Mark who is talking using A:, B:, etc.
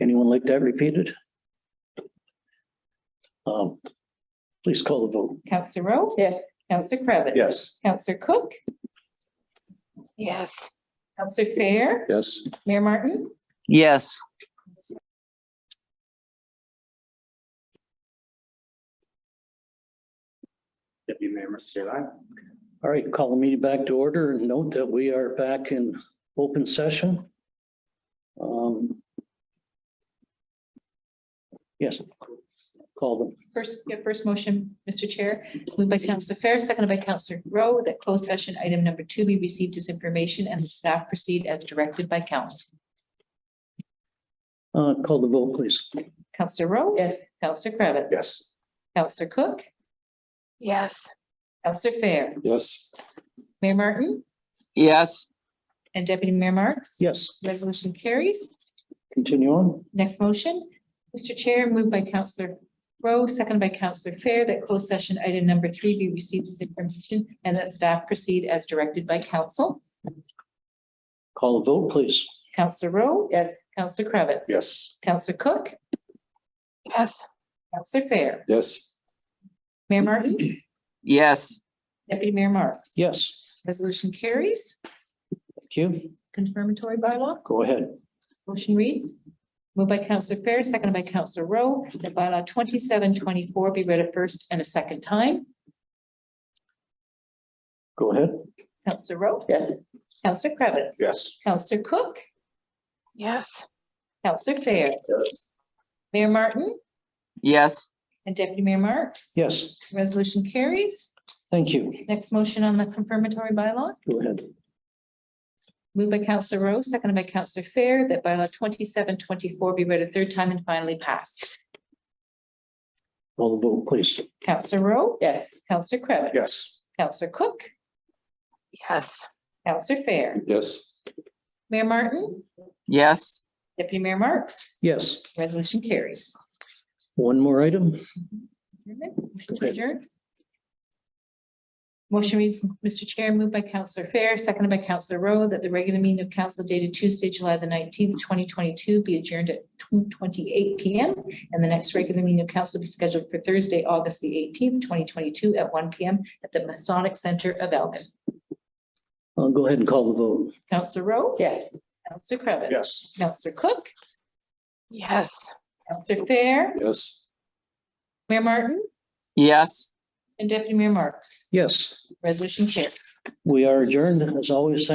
A: Anyone like that repeated? Um, Please call the vote.
B: Counselor Rowe?
C: Yes.
B: Counselor Cravitt?
D: Yes.
B: Counselor Cook?
C: Yes.
B: Counselor Fair?
D: Yes.
B: Mayor Martin?
E: yes,
D: Deputy Mayor Murphy, say aye.
A: All right, call the meeting back to order and note that we are back in open session. Um, Yes. Call them.
B: First, yeah, first motion, Mr. Chair, moved by Counselor Fair, seconded by Counselor Rowe, that closed session item number two be received as information and that staff proceed as directed by council.
A: Uh, Call the vote, please.
B: Counselor Rowe?
C: Yes.
B: Counselor Cravitt?
D: Yes.
B: Counselor Cook?
C: Yes.
B: Counselor Fair?
D: Yes.
B: Mayor Martin?
E: yes,
B: And Deputy Mayor Marks?
A: Yes,
B: Resolution carries.
A: continue on.
B: Next motion, Mr. Chair, moved by Counselor Rowe, seconded by Counselor Fair, that closed session item number three be received as information and that staff proceed as directed by council.
A: Call the vote, please.
B: Counselor Rowe?
C: Yes.
B: Counselor Cravitz?
D: Yes.
B: Counselor Cook?
C: Yes.
B: Counselor Fair?
D: Yes.
B: Mayor Martin?
E: yes,
B: Deputy Mayor Marks?
A: Yes,
B: Resolution carries.
A: thank you.
B: Confirmatory bylaw.
A: Go ahead.
B: Motion reads, moved by Counselor Fair, seconded by Counselor Rowe, that bylaw twenty-seven twenty-four be read a first and a second time.
A: Go ahead.
B: Counselor Rowe?
C: Yes.
B: Counselor Cravitz?
D: Yes.
B: Counselor Cook?
C: Yes.
B: Counselor Fair?
D: Yes.
B: Mayor Martin?
E: yes,
B: And Deputy Mayor Marks?
A: Yes,
B: Resolution carries.
A: thank you.
B: Next motion on the confirmatory bylaw,
A: Go ahead.
B: moved by Counselor Rowe, seconded by Counselor Fair, that bylaw twenty-seven twenty-four be read a third time and finally passed.
A: Call the vote, please.
B: Counselor Rowe?
C: Yes.
B: Counselor Cravitt?
D: Yes.
B: Counselor Cook?
C: Yes.
B: Counselor Fair?
D: Yes.
B: Mayor Martin?
E: yes,
B: Deputy Mayor Marks?
A: Yes,
B: Resolution carries.
A: one more item.
B: Motion to
A: Okay.
B: adjourn. Motion reads, Mr. Chair, moved by Counselor Fair, seconded by Counselor Rowe, that the regular meeting of council dated Tuesday, July the nineteenth, twenty twenty-two be adjourned at two twenty-eight P M. And the next regular meeting of council be scheduled for Thursday, August the eighteenth, twenty twenty-two at one P M at the Masonic Center of Elgin.
A: I'll go ahead and call the vote.
B: Counselor Rowe?
C: Yes.
B: Counselor Cravitt?
D: Yes.
B: Counselor Cook?
C: Yes.
B: Counselor Fair?
D: Yes.
B: Mayor Martin?
E: yes.
B: And Deputy Mayor Marks?
A: Yes,
B: Resolution carries.
A: we are adjourned as always.